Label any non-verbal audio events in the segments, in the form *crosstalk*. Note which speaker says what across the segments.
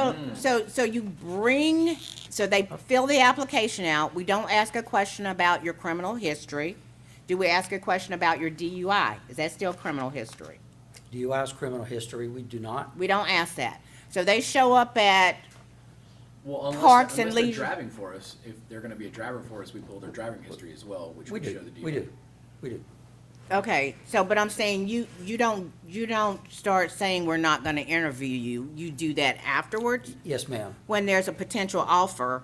Speaker 1: So,
Speaker 2: Mm.
Speaker 1: so, so you bring, so they fill the application out, we don't ask a question about your criminal history. Do we ask a question about your DUI? Is that still criminal history?
Speaker 2: DUI's criminal history, we do not.
Speaker 1: We don't ask that. So they show up at,
Speaker 3: Well, unless,
Speaker 1: Parks and
Speaker 3: unless they're
Speaker 1: leisure.
Speaker 3: driving for us, if they're gonna be a driver for us, we pull their driving history as well, which
Speaker 2: We
Speaker 3: would show
Speaker 2: do,
Speaker 3: the DUI.
Speaker 2: we do, we do.
Speaker 1: okay, so, but I'm saying you, you don't, you don't start saying we're not gonna interview you. You do that afterwards
Speaker 2: Yes, ma'am.
Speaker 1: when there's a potential offer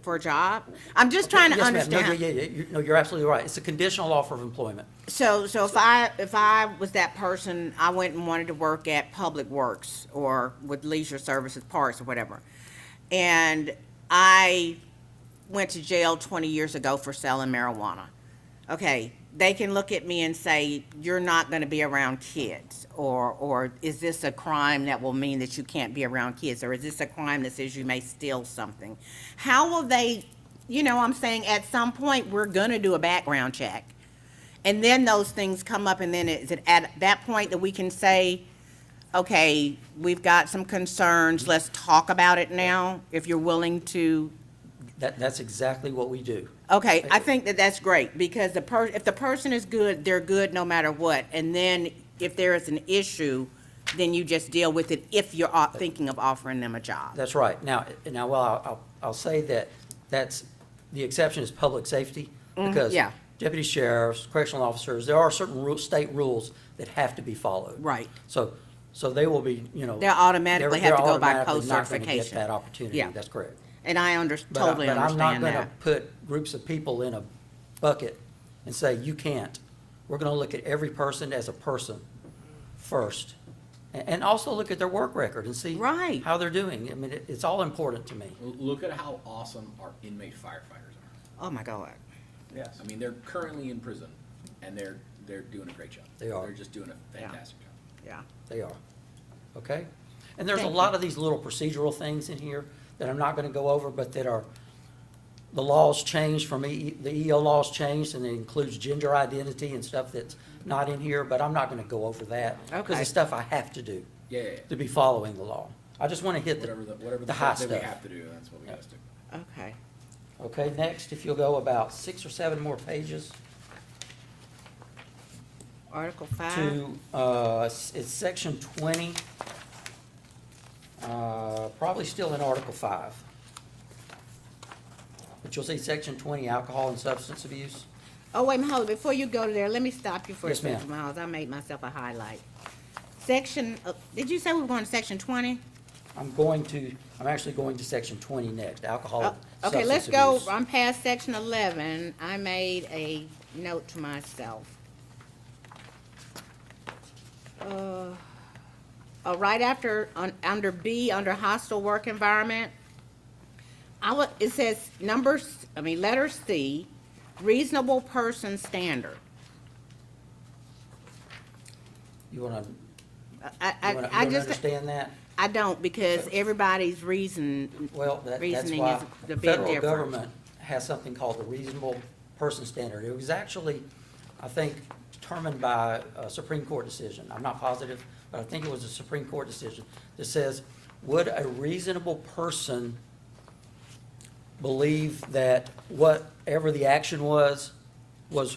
Speaker 1: for a job? I'm just trying to
Speaker 2: Yes, ma'am. No,
Speaker 1: understand.
Speaker 2: Yeah, yeah, yeah, You- no, you're absolutely right. It's a conditional offer of employment.
Speaker 1: So, so if I, if I was that person, I went and wanted to work at Public Works or with Leisure Services Parks or whatever. And I went to jail twenty years ago for selling marijuana. Okay, they can look at me and say, you're not gonna be around kids, or, or is this a crime that will mean that you can't be around kids? Or is this a crime that says you may steal something? How will they, you know, I'm saying, at some point, we're gonna do a background check. And then those things come up, and then is it at that point that we can say, okay, we've got some concerns, let's talk about it now, if you're willing to?
Speaker 2: That, that's exactly what we do.
Speaker 1: Okay, I think that that's great, because the per, if the person is good, they're good no matter what. And then if there is an issue, then you just deal with it if you're uh, thinking of offering them a job.
Speaker 2: That's right. Now, now, well, I'll, I'll- I'll say that that's, the exception is public safety because
Speaker 1: Mm, yeah.
Speaker 2: deputy sheriffs, correctional officers, there are certain ru state rules that have to be followed.
Speaker 1: Right.
Speaker 2: So, so they will be, you know.
Speaker 1: They'll automatically
Speaker 2: they're-
Speaker 1: have to go by
Speaker 2: they're automatically not gonna get
Speaker 1: post-certification.
Speaker 2: That opportunity,
Speaker 1: Yeah.
Speaker 2: that's correct.
Speaker 1: And I under,
Speaker 2: But I-
Speaker 1: totally
Speaker 2: But I'm not
Speaker 1: understand
Speaker 2: going to
Speaker 1: that.
Speaker 2: put groups of people in a bucket and say, you can't. We're going to look at every person as a person first. a- And also look at their work record and see.
Speaker 1: Right.
Speaker 2: How they're doing. I mean, it- it's all important to me.
Speaker 3: L- Look at how awesome our inmate firefighters are.
Speaker 1: Oh, my God.
Speaker 2: Yes.
Speaker 3: I mean, they're currently in prison, and they're, they're doing a great job.
Speaker 2: They are.
Speaker 3: They're just doing a fantastic job.
Speaker 1: Yeah.
Speaker 2: They are. Okay? And there's a
Speaker 1: Thank you.
Speaker 2: lot of these little procedural things in here that I'm not going to go over, but that are, the laws changed from, E- the EO laws changed, and it includes gender identity and stuff that's not in here, but I'm not going to go over that. Because
Speaker 1: Okay.
Speaker 2: it's stuff I have to do.
Speaker 3: Yeah, yeah, yeah.
Speaker 2: To be following the law. I just want to hit
Speaker 3: Whatever the,
Speaker 2: the,
Speaker 3: whatever
Speaker 2: the
Speaker 3: the
Speaker 2: high
Speaker 3: stuff that we
Speaker 2: stuff.
Speaker 3: have to do, that's what we
Speaker 2: Yeah.
Speaker 3: have to do.
Speaker 1: Okay.
Speaker 2: Okay, next, if you'll go about six or seven more pages
Speaker 1: Article five?
Speaker 2: to, uh, s- it's section twenty. Uh, probably still in Article five. But you'll see section twenty, alcohol and substance abuse.
Speaker 1: Oh, wait, hold on, before you go to there, let me stop you for a
Speaker 2: Yes, ma'am.
Speaker 1: second, Miles, I made myself a highlight. Section, uh, did you say we were going to section twenty?
Speaker 2: I'm going to, I'm actually going to section twenty next, alcohol and Oh, substance
Speaker 1: Oh, Okay,
Speaker 2: abuse.
Speaker 1: let's go, I'm past section eleven, I made a note to myself. Uh, uh, right after, on, under B, under hostile work environment, I would, it says numbers, I mean, letter C, reasonable person standard.
Speaker 2: You wanna,
Speaker 1: I, I,
Speaker 2: you wanna, you
Speaker 1: I
Speaker 2: wanna
Speaker 1: just.
Speaker 2: understand that?
Speaker 1: I don't, because everybody's reason,
Speaker 2: Well, that, that's
Speaker 1: Reasoning
Speaker 2: why
Speaker 1: is the big
Speaker 2: federal
Speaker 1: difference.
Speaker 2: government has something called the reasonable person standard. It was actually, I think, determined by a Supreme Court decision. I'm not positive, but I think it was a Supreme Court decision that says, would a reasonable person believe that whatever the action was, was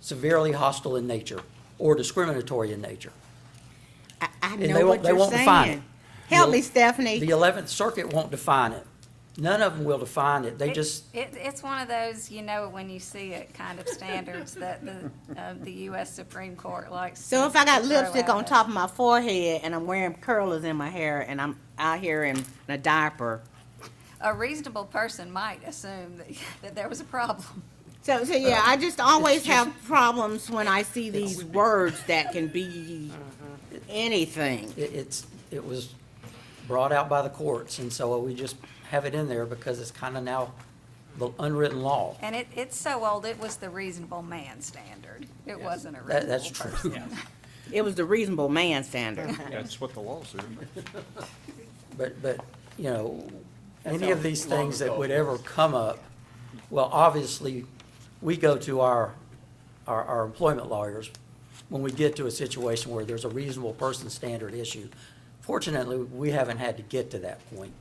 Speaker 2: severely hostile in nature or discriminatory in nature?
Speaker 1: I, I
Speaker 2: And they
Speaker 1: know
Speaker 2: won't,
Speaker 1: what
Speaker 2: they
Speaker 1: you're
Speaker 2: won't define it.
Speaker 1: saying. Help
Speaker 2: The-
Speaker 1: me, Stephanie.
Speaker 2: The Eleventh Circuit won't define it. None of them will define it. They
Speaker 4: It-
Speaker 2: just,
Speaker 4: It, it's one of those, you know, it when you see it kind of standards that the, uh, the US Supreme Court likes.
Speaker 1: So
Speaker 4: to
Speaker 1: if I got
Speaker 4: throw
Speaker 1: lipstick
Speaker 4: at
Speaker 1: on
Speaker 4: us.
Speaker 1: top of my forehead and I'm wearing curlers in my hair and I'm out here in a diaper.
Speaker 4: A reasonable person might assume that, *laughs* that there was a problem.
Speaker 1: So, so yeah, I just always
Speaker 2: just-
Speaker 1: have problems when I see these words that can be anything.
Speaker 2: it- it's, it was brought out by the courts, and so we just have it in there because it's kind of now the unwritten law.
Speaker 4: And it, it's so old, it was the reasonable man standard. It wasn't a
Speaker 2: That, that's
Speaker 4: reasonable person.
Speaker 2: true.
Speaker 1: It was the reasonable man standard.
Speaker 5: That's what the law says.
Speaker 2: *laughs* But, but, you know,
Speaker 3: That's
Speaker 2: any of
Speaker 3: how
Speaker 2: these
Speaker 3: long
Speaker 2: things that
Speaker 3: ago
Speaker 2: would
Speaker 3: it
Speaker 2: ever come up, well, obviously, we go to our, our, our employment lawyers when we get to a situation where there's a reasonable person standard issue. Fortunately, we haven't had to get to that point.